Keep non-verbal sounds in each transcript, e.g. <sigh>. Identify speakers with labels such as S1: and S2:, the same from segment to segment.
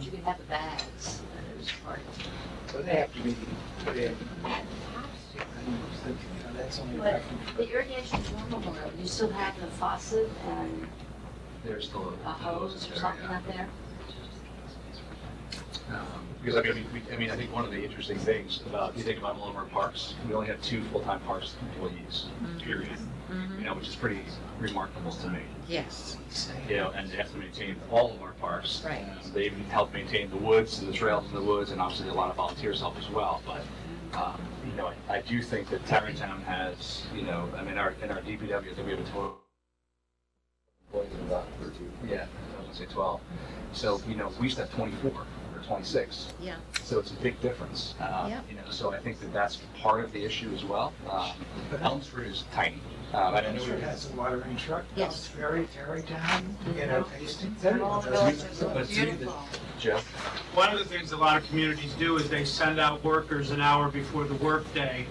S1: you can have the bags. Those are-
S2: So they have to be put in. That's only
S1: But
S2: reference,
S1: the irrigation's normal, though. you still have the faucet and
S3: There's still
S1: a hose or Uh-huh. something out there.
S3: Um, Because I mean, we, I mean, I think one of the interesting things about, you think about all of our parks, we only have two full-time parks employees, period. You know, which is pretty remarkable to me,
S4: Yes,
S3: you know, and they have to maintain all of our parks.
S4: Right.
S3: Um, They even help maintain the woods, the trails in the woods, and obviously a lot of volunteers help as well, but, um, you know, I- I do think that Tarrytown has, you know, I mean, our, in our DPW, I think we have a total. Yeah, I was gonna say twelve. So, you know, we used to have twenty-four or twenty-six.
S4: yeah.
S3: So it's a big difference. uh,
S4: Yeah.
S3: You know, so I think that that's part of the issue as well. Uh, Elmsford is tiny. Uh, but I know
S2: Sure has a watering truck,
S4: Yes.
S2: it's very, very down, you know, tasting, there you
S1: All the
S2: go.
S1: villages
S3: But
S1: look
S3: it's really the-
S1: beautiful.
S3: Jeff,
S5: One of the things a lot of communities do is they send out workers an hour before the workday.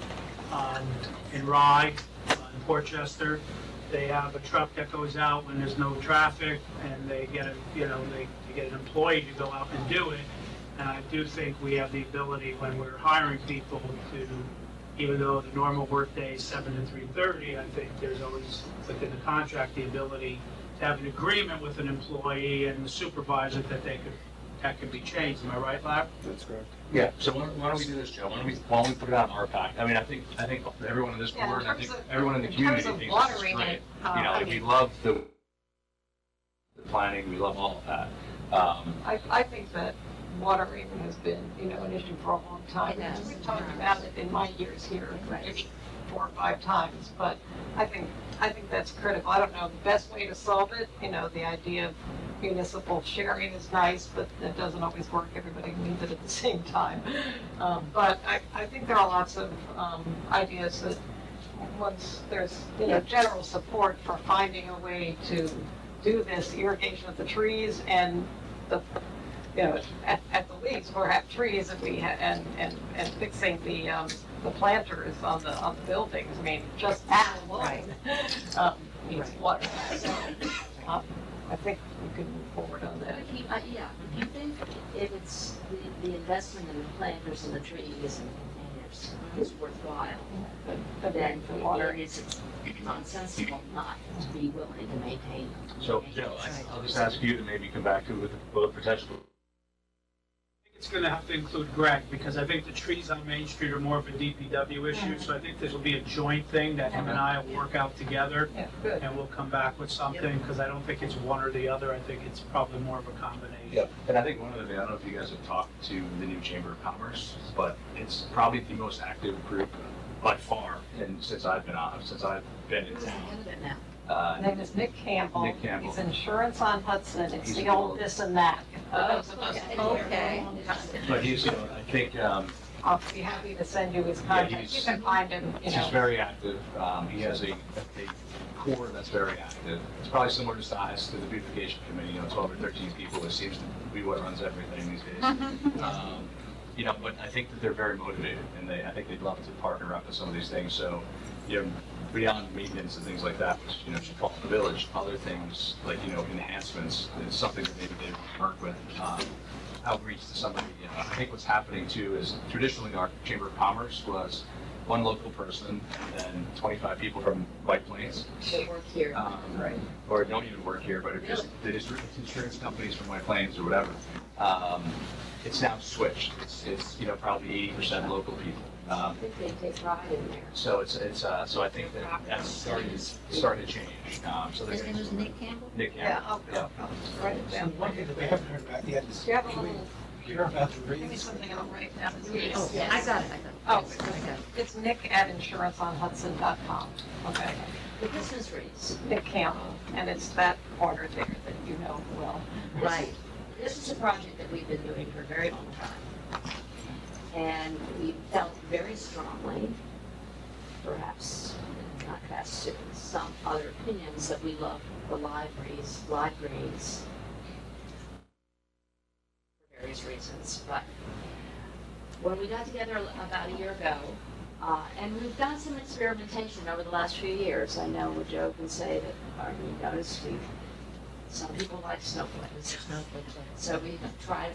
S5: um, In Rye, uh, in Portchester, they have a truck that goes out when there's no traffic, and they get, a you know, they they get an employee to go out and do it. And I do think we have the ability, when we're hiring people, to, even though the normal workday is seven to three-thirty, I think there's always, within the contract, the ability to have an agreement with an employee and the supervisor that they could that can be changed, am I right, Larry?
S3: yeah, so why don't- why don't we do this, Joe? Why don't we, why don't we put it on our pack? I mean, I think, I think everyone in this
S1: Yeah, in
S3: board, and I
S1: terms
S3: think
S1: of-
S3: everyone in the
S1: in
S3: community
S1: terms of
S3: thinks this is
S1: watering
S3: great.
S1: it, uh,
S3: You know,
S1: I
S3: and we
S1: mean-
S3: love the the planning, we love all of that. Um,
S6: I, I think that watering has been, you know, an issue for a long time.
S1: It has.
S6: We've talked about it in my years here,
S1: Right.
S6: maybe four or five times, but I think, I think that's critical. I don't know, the best way to solve it, you know, the idea of municipal sharing is nice, but that doesn't always work. Everybody needs it at the <laughs> same time. Um, But I, I think there are lots of um, ideas that once there's, you know, general support for finding a way to do this irrigation of the trees and the, you know, at, at the least, or have trees and we, ha- and, and, and fixing the, um, the planters on the, on the buildings, I mean, just that alone, <laughs> um, needs water. So, uh, I think we can move forward on that.
S1: But if you- uh, Yeah, if you think if it's the, the investment in the planters and the trees and containers is worthwhile,
S6: The,
S1: then
S6: the water.
S1: it's nonsensical not to be willing to maintain them.
S3: So, Joe, I- I'll just ask you to maybe come back to with the potential
S5: I think It's gonna have to include Greg, because I think the trees on Main Street are more of a DPW issue, so I think this will be a joint thing that him and I will work out together,
S6: Yeah, good.
S5: and we'll come back with something, because I don't think it's one or the other, I think it's probably more of a combination.
S3: Yep. And I think one other thing, I don't know if you guys have talked to the new Chamber of Commerce, but it's probably the most active group by far, and since I've been on, since I've been in
S1: Who's the
S3: town.
S1: head of it now?
S6: And
S3: Uh,
S6: then there's Nick Campbell.
S3: Nick Campbell.
S6: He's insurance on Hudson, it's
S3: He's
S6: the
S3: the
S6: old
S3: old- Oh,
S6: this and that. Oh, For those of us who are here.
S4: Okay.
S3: But he's, you know, I think, um,
S6: I'll be happy to send you his
S3: Yeah,
S6: contact, you
S3: he's-
S6: can find him, you
S3: he's
S6: know.
S3: just very active. Um, he has a, a core that's very active. It's probably similar to size to the beautification committee, you know, twelve or thirteen people. It seems to be what runs everything these days. Um, You know, but I think that they're very motivated and they, I think they'd love to partner up with some of these things. So, you know, beyond maintenance and things like that, which, you know, should fall in the village, other things like, you know, enhancements is something that maybe they would work with. um, Outreach to somebody, you know, I think what's happening too is traditionally our Chamber of Commerce was one local person and then twenty-five people from White Plains.
S1: They work here.
S3: um, Or don't even work here, but it just, the district- insurance companies from White Plains or whatever. Um, It's now switched. It's, it's, you know, probably eighty percent local people.
S1: I
S3: Um,
S1: think they take pride in there.
S3: so it's, it's, uh, so I think that that's starting, starting to change. Um, so
S4: His
S3: there's
S4: name is Nick Campbell?
S3: Nick
S6: Yeah,
S3: Campbell.
S6: I'll, I'll I'll write it
S2: So
S6: down.
S2: one thing that we haven't heard about yet is,
S6: Do you have a
S2: we
S6: little,
S2: hear about the
S6: give me
S2: reeds.
S6: something I'll write down.
S4: Oh,
S6: Yes.
S4: I got it, I got it.
S6: Oh.
S4: I got it.
S6: It's nick at insuranceonhudson.com, okay?
S1: The Christmas trees.
S6: Nick Campbell, and it's that corner there that you know well.
S4: Right,
S1: This is a project that we've been doing for a very long time. And we felt very strongly, perhaps not past to some other opinions, that we love the libraries, libraries for various reasons. But when we got together about a year ago, uh, and we've done some experimentation over the last few years. I know we joke and say that, or we noticed we've, some people like snowflakes.
S4: Snowflake.
S1: So we tried